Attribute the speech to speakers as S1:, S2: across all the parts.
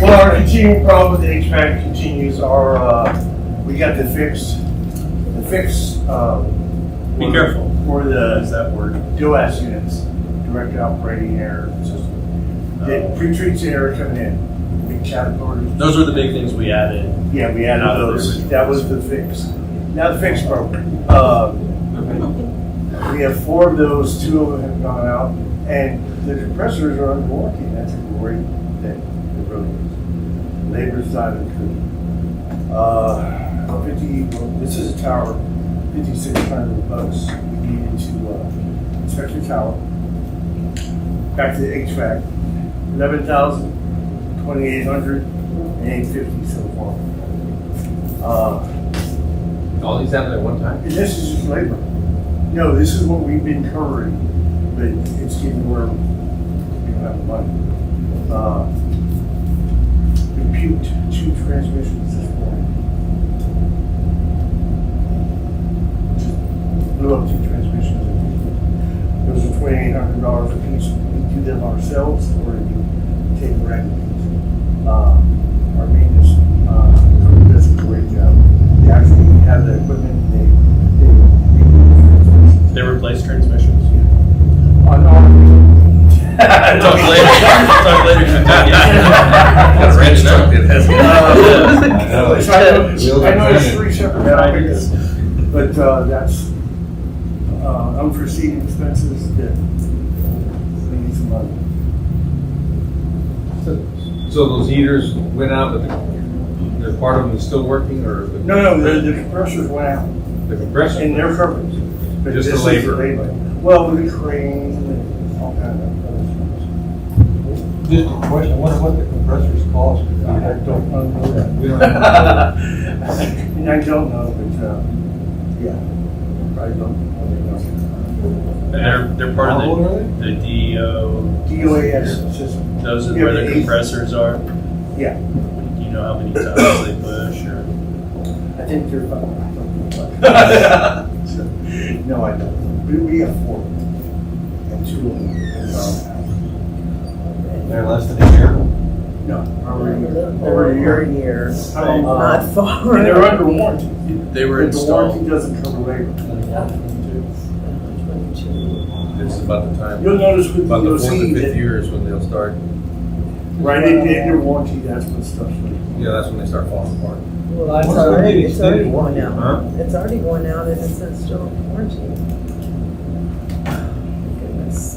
S1: Well, our continuing problem with the HVAC continues, our, uh, we got the fix, the fix, uh.
S2: Be
S1: for-
S2: careful.
S1: For
S2: Does
S1: the
S2: that work?
S1: DOAS units, direct operating air system.
S2: Oh.
S1: It pre-treats the air coming in, big category.
S2: Those were the big things we added.
S1: Yeah, we added
S2: Out of the
S1: those,
S2: original.
S1: that was the fix. Now the fix broke, uh, we have four of those, two of them have gone out, and the compressors are under warranty, that's a glory thing, it really is. Labor's not included. Uh, fifty, well, this is a tower, fifty-six hundred bucks, we needed to, uh, inspect the tower. Back to the HVAC, eleven thousand, twenty-eight hundred, and eight fifty so far. Uh,
S3: All these happened at one time?
S1: and this is just labor. No, this is what we've been covering, but it's getting where we don't have the money. Uh, Compute two transmissions this morning. Blew up two transmissions. Those are twenty-eight hundred dollars a piece. We do them ourselves or we take rent. Uh, Our maintenance, uh, crew does a great job. They actually have the equipment, they, they. they-
S2: They replaced transmissions.
S1: On our.
S2: Talk later. Talk later.
S3: That's
S2: That's
S3: random, huh? It has-
S1: Uh,
S4: know, it's-
S1: So I know,
S4: Real
S1: I know it's
S4: confusion.
S1: three separate topics, but uh, that's uh, unforeseen expenses that we need some money.
S3: So those heaters went out, but the- the, part of them is still working or? the-
S1: No, no, the, the compressors went out
S3: The compressor?
S1: and they're covered. but
S3: Just the
S1: this is
S3: labor.
S1: Well, with the crane and all kind of other things.
S4: Just a question, I wonder what the compressors cost?
S1: I don't know that.
S4: We don't
S1: And I don't know, but, uh, yeah, probably don't. probably don't.
S2: They're, they're part
S4: How old
S2: of
S4: are they?
S2: the, the DO,
S1: DOAS system.
S2: those are
S1: Yeah,
S2: where
S1: but
S2: the
S1: it-
S2: compressors are. Do
S1: Yeah.
S2: you know how many times they push or?
S1: I think you're about right. So, No, I don't. We, we have four. And two of them in our house. And
S4: They're less than a year?
S1: No, over a year.
S5: Over a year. Uh,
S1: Um,
S5: Not far.
S1: And they're under warranty.
S2: They were
S1: But The warranty
S2: installed.
S1: doesn't cover labor.
S3: This is about the time,
S1: You'll notice with the
S3: about the fourth
S1: DOC
S3: and fifth
S1: that,
S3: year is when they'll start,
S1: right, they, they, their warranty, that's when stuff.
S3: yeah, that's when they start falling apart.
S5: Well, it's
S4: What's the
S5: already,
S4: latest
S5: it's already
S4: date?
S5: going out.
S3: Huh?
S5: It's already going out and it's in still quarantine. Goodness.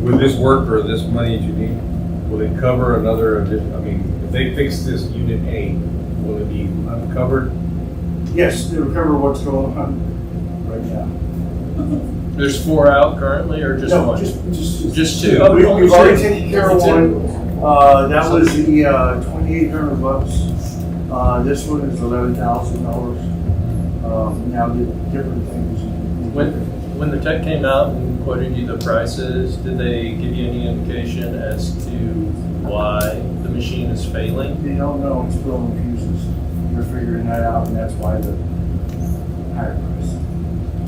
S3: With this work or this money that you need, will it cover another, addition- I mean, if they fix this unit A, will it be uncovered?
S1: Yes, they recover what's going on um, right now.
S2: There's four out currently or just
S1: No,
S2: one?
S1: Just, just.
S2: Just
S1: Uh,
S2: two?
S1: we- We've already taken care of one. Uh, that was the, uh, twenty-eight hundred bucks. Uh, this one is eleven thousand dollars. Um, now the different things.
S2: When, when the tech came out and quoted you the prices, did they give you any indication as to why the machine is failing?
S1: They don't know, it's blowing fuses. They're figuring that out and that's why the higher price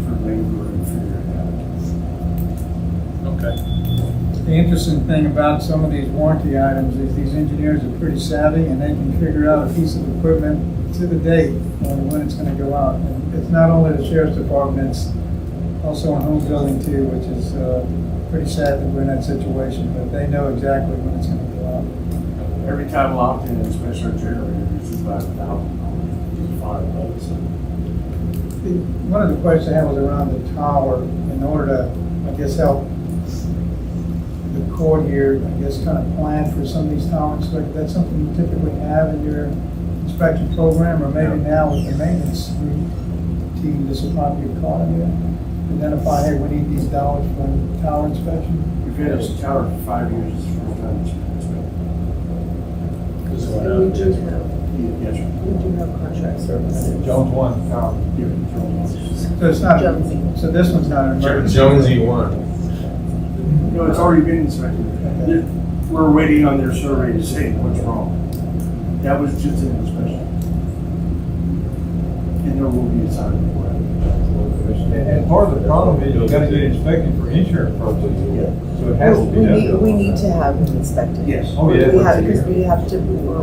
S1: for labor and figuring it out.
S2: Okay.
S6: The interesting thing about some of these warranty items is these engineers are pretty savvy and they can figure out a piece of equipment to the date on when it's gonna go out. And It's not only the sheriff's department, it's also in home building too, which is, uh, pretty sad that we're in that situation, but they know exactly when it's gonna go out.
S1: Every time locked in, especially our generator, it's about a thousand dollars, five bucks.
S6: The- One of the questions I had was around the tower, in order to, I guess, help the court here, I guess, kind of plan for some of these tower inspections. That's something you typically have in your inspection program, or maybe now with the maintenance team, this will probably be caught in there. Identify, hey, we need these dollars for the tower inspection.
S1: We've had this tower for five years, it's the first time it's been.
S2: This one
S5: And
S2: out.
S5: we do have,
S1: Yes, sir.
S5: we do have contract services.
S4: Jones one.
S1: Tower, yeah, it's all-
S6: So it's not,
S5: Jonesy.
S6: so this one's not an emergency.
S3: Jonesy one.
S1: No, it's already been inspected. They're- We're waiting on their survey to say what's wrong. That was just an inspection. And there will be a sign for it.
S3: And, and part of the problem is you gotta get inspected for insurance
S7: Yeah.
S3: purposes, so it has to
S5: We
S3: be done.
S5: need, we need to have them inspected.
S7: Yes.
S3: Oh, yeah.
S5: We
S3: once
S5: have,
S3: a year.
S5: because we have to, we're